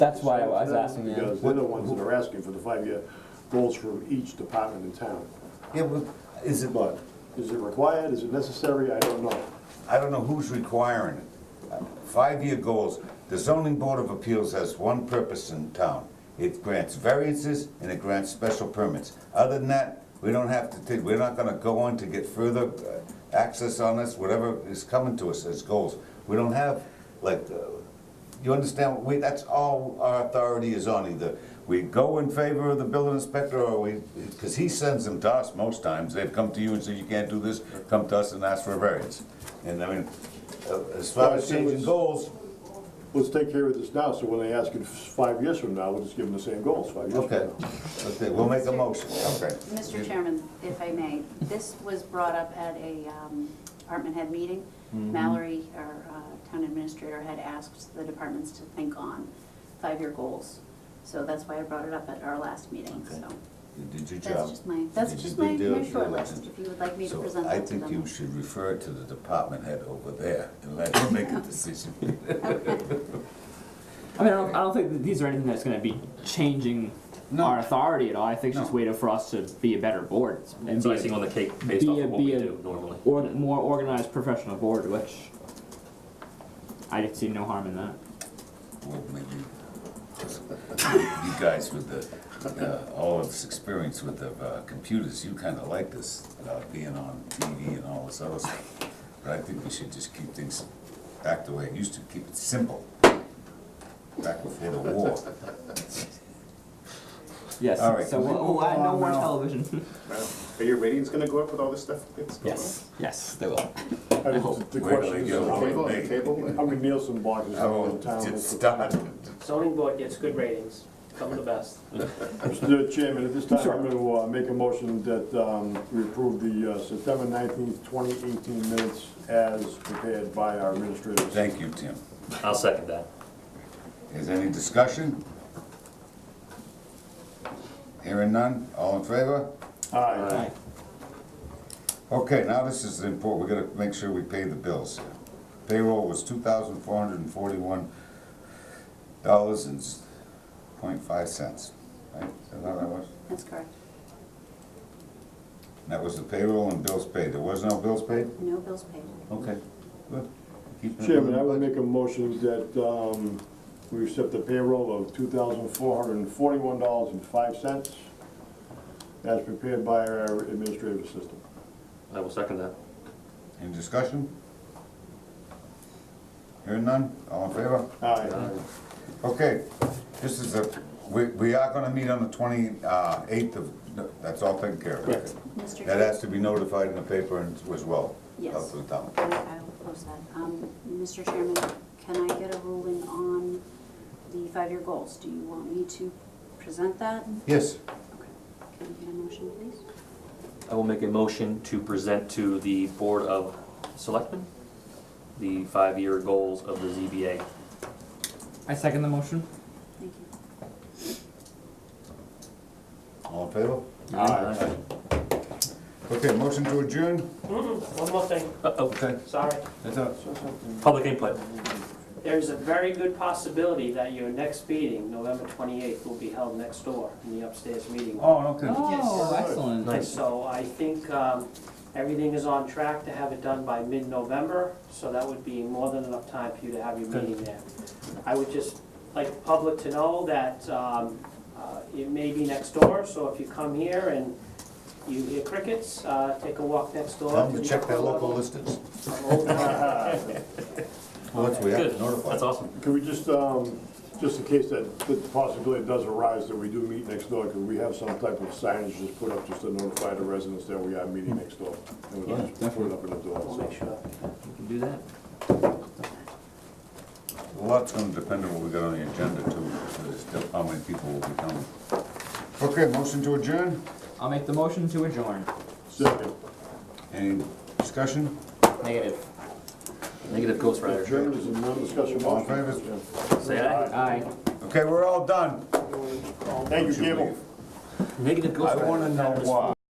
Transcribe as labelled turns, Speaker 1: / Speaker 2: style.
Speaker 1: That's why I was asking, yeah.
Speaker 2: Because they're the ones that are asking for the five-year goals from each department in town.
Speaker 3: Yeah, well, is it,
Speaker 2: But is it required, is it necessary, I don't know.
Speaker 3: I don't know who's requiring it. Five-year goals, the zoning board of appeals has one purpose in town. It grants variances and it grants special permits. Other than that, we don't have to, take- we're not gonna go on to get further uh, access on this, whatever is coming to us as goals. We don't have, like, uh, you understand, we, that's all our authority is on, either we go in favor of the building inspector, or we, because he sends them to us most times, they've come to you and said, you can't do this, come to us and ask for a variance. And I mean, uh, as far as changing goals,
Speaker 2: Let's take care of this now, so when they ask it five years from now, we'll just give them the same goals five years from
Speaker 3: okay,
Speaker 2: now.
Speaker 3: okay, we'll make a motion, okay.
Speaker 4: Mr. Chairman, if I may, this was brought up at a um, department head meeting.
Speaker 3: Mm-hmm.
Speaker 4: Mallory, our uh, town administrator, had asked the departments to think on five-year goals. So that's why I brought it up at our last meeting,
Speaker 3: Okay.
Speaker 4: so.
Speaker 3: You Did your job.
Speaker 4: That's just my, that's
Speaker 3: You did
Speaker 4: just
Speaker 3: your
Speaker 4: my
Speaker 3: deal,
Speaker 4: my short
Speaker 3: you're
Speaker 4: list,
Speaker 3: elected.
Speaker 4: if you would like me to
Speaker 3: So
Speaker 4: present
Speaker 3: I
Speaker 4: that to
Speaker 3: think you
Speaker 4: them.
Speaker 3: should refer to the department head over there and let him make a decision.
Speaker 1: I mean, I don't, I don't think that these are anything that's gonna be changing
Speaker 3: No.
Speaker 1: our authority at all. I think it's just
Speaker 3: No.
Speaker 1: way to- for us to be a better board. and
Speaker 5: It's
Speaker 1: be a-
Speaker 5: icing on the cake based
Speaker 1: be
Speaker 5: off
Speaker 1: a-
Speaker 5: of what we
Speaker 1: be a-
Speaker 5: do normally.
Speaker 1: Or, more organized professional board, which I see no harm in that.
Speaker 3: Well, maybe you guys with the, uh, all of this experience with the uh, computers, you kind of like this, uh, being on TV and all this other stuff. But I think we should just keep things back the way it used to, keep it simple, back before the war.
Speaker 1: Yes.
Speaker 3: All right,
Speaker 1: So
Speaker 3: can we
Speaker 1: we'll,
Speaker 3: move
Speaker 1: we'll add no
Speaker 3: on
Speaker 1: more
Speaker 3: now?
Speaker 1: television.
Speaker 6: Are your ratings gonna go up with all this stuff that's going on?
Speaker 1: yes. Yes, they will.
Speaker 2: I
Speaker 3: Oh,
Speaker 2: hope the
Speaker 3: Where do
Speaker 2: question is,
Speaker 3: they go?
Speaker 2: how many-
Speaker 6: Table, table?
Speaker 2: how many Nielsen boxes
Speaker 3: I
Speaker 2: are in
Speaker 3: won't
Speaker 2: town?
Speaker 3: just start.
Speaker 7: Zoning board gets good ratings, some of the best.
Speaker 2: Mr. Chairman, at this time, I'm gonna uh, make a motion that um, we approve the uh, September nineteenth, twenty eighteen minutes as prepared by our administrators.
Speaker 3: Thank you, Tim.
Speaker 5: I'll second that.
Speaker 3: Is any discussion? Hearing none, all in favor?
Speaker 2: Aye.
Speaker 3: Okay, now this is important, we gotta make sure we pay the bills. Payroll was two thousand four hundred and forty-one dollars and point five cents, right? Is that how that was?
Speaker 4: That's correct.
Speaker 3: And That was the payroll and bills paid, there was no bills paid?
Speaker 4: No bills paid.
Speaker 3: Okay, good. Keep it
Speaker 2: Chairman, I
Speaker 3: moving.
Speaker 2: would make a motion that um, we accept the payroll of two thousand four hundred and forty-one dollars and five cents as prepared by our administrative assistant.
Speaker 5: I will second that.
Speaker 3: Any discussion? Hearing none, all in favor?
Speaker 2: Aye.
Speaker 3: Okay, this is a, we, we are gonna meet on the twenty-eighth of, that's all taken care of.
Speaker 1: Correct.
Speaker 3: That
Speaker 4: Mr. Chair,
Speaker 3: has to be notified in the paper and as well.
Speaker 4: Yes.
Speaker 3: Out to the town.
Speaker 4: I I will post that. Um, Mr. Chairman, can I get a ruling on the five-year goals? Do you want me to present that?
Speaker 3: Yes,
Speaker 4: Okay. Can I get a motion, please?
Speaker 5: I will make a motion to present to the Board of Selectmen the five-year goals of the ZBA.
Speaker 1: I second the motion.
Speaker 4: Thank you.
Speaker 3: all in favor?
Speaker 5: Aye.
Speaker 3: Okay, motion to adjourn?
Speaker 7: One more thing,
Speaker 5: Uh-oh,
Speaker 3: Okay.
Speaker 7: sorry.
Speaker 3: That's up.
Speaker 5: public input.
Speaker 7: There's a very good possibility that your next meeting, November 28th, will be held next door in the upstairs meeting. room.
Speaker 3: Oh, okay.
Speaker 1: Oh, excellent.
Speaker 3: Nice.
Speaker 7: So I think um, everything is on track to have it done by mid-November, so that would be more than enough time for you to have your meeting there. I would just like the public to know that um, uh, it may be next door, so if you come here and you hear crickets, uh, take a walk next door.
Speaker 3: Tell them
Speaker 7: the
Speaker 3: to check their
Speaker 7: upper
Speaker 3: local
Speaker 7: level.
Speaker 3: listings.
Speaker 7: Old town.
Speaker 3: Well, that's, we have
Speaker 5: Good,
Speaker 3: to notify.
Speaker 5: that's awesome.
Speaker 2: Can we just, um, just in case that, that possibility does arise that we do meet next door, could we have some type of signage just put up just to notify the residents that we are meeting next door? And we'll just put it up in the door,
Speaker 7: We'll
Speaker 2: so.
Speaker 7: make sure.
Speaker 1: You can do that.
Speaker 3: A lot's gonna depend on what we got on the agenda too, so there's still how many people will be coming. Okay, motion to adjourn?
Speaker 1: I'll make the motion to adjourn.
Speaker 2: Second,
Speaker 3: Any discussion?
Speaker 1: Negative.
Speaker 5: Negative Ghost Rider.
Speaker 2: Chairman, is there no discussion?
Speaker 3: All in favor?
Speaker 5: Say aye.
Speaker 1: Aye.
Speaker 3: Okay, we're all done.
Speaker 2: Thank you,
Speaker 3: Should we-
Speaker 2: Gable.
Speaker 5: Negative Ghost
Speaker 3: I
Speaker 5: Rider.
Speaker 3: wanna know why.